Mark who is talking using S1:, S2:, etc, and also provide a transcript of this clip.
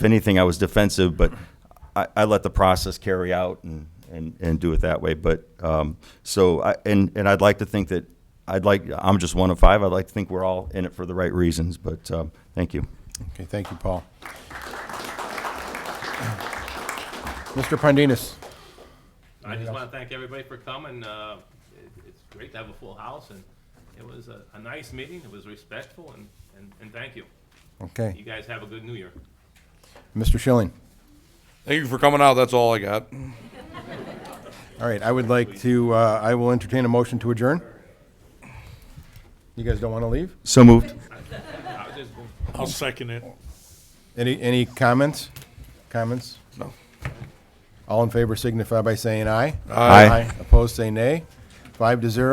S1: if anything, I was defensive, but I, I let the process carry out and, and, and do it that way. But, um, so I, and, and I'd like to think that, I'd like, I'm just one of five. I'd like to think we're all in it for the right reasons, but, um, thank you.
S2: Okay, thank you, Paul. Mr. Pondinas,
S3: I just want to thank everybody for coming. Uh, it- It's great to have a full house, and it was a a nice meeting. It was respectful, and- and and thank you. You
S2: okay.
S3: guys have a good New Year.
S2: Mr. Schilling,
S4: Thank you for coming out. That's all I got.
S2: all right, I would like to, uh, I will entertain a motion to adjourn. You guys don't want to leave?
S1: So moved.
S3: I was just going-
S5: I'll second it.
S2: Any, any comments? Comments?
S4: No.
S2: All in favor signify by saying aye.
S1: Aye.
S2: Opposed, say nay. Five to zero.